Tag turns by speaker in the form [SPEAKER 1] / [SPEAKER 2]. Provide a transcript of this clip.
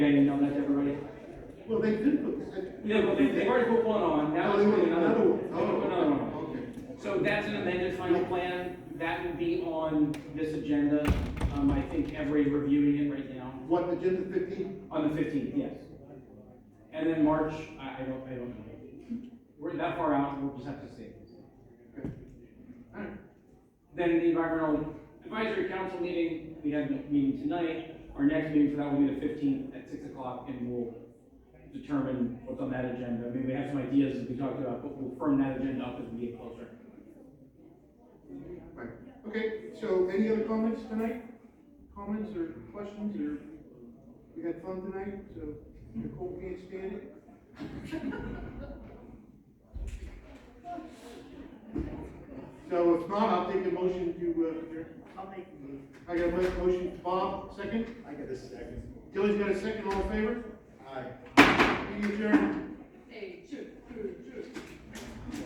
[SPEAKER 1] Getting on that, everybody.
[SPEAKER 2] Well, they did put, they.
[SPEAKER 1] Yeah, well, they, they already put one on, now
[SPEAKER 2] Oh,
[SPEAKER 1] it's
[SPEAKER 2] they put
[SPEAKER 1] putting another one.
[SPEAKER 2] another one.
[SPEAKER 1] They put another one.
[SPEAKER 2] Okay.
[SPEAKER 1] So that's an amended final plan, that will be on this agenda, um, I think every reviewing it right now,
[SPEAKER 2] What, agenda fifteen?
[SPEAKER 1] on the fifteenth, yes. And then March, I, I don't, I don't know. We're that far out, we'll just have to see. Alright. Then the environmental advisory council meeting, we had a meeting tonight, our next meeting for that will be the fifteenth at six o'clock, and we'll determine what's on that agenda, I mean, we have some ideas that we talked about, but we'll firm that agenda up as we get closer.
[SPEAKER 2] Right, okay, so any other comments tonight? Comments or questions or, we had fun tonight, so Nicole can't stand it? So if not, I'll take a motion to, uh, adjourn.
[SPEAKER 3] I'll make a move.
[SPEAKER 2] I got a motion, Bob, second?
[SPEAKER 4] I got a second.
[SPEAKER 2] Tilly's got a second, all in favor?
[SPEAKER 4] Aye.
[SPEAKER 2] Meeting adjourned.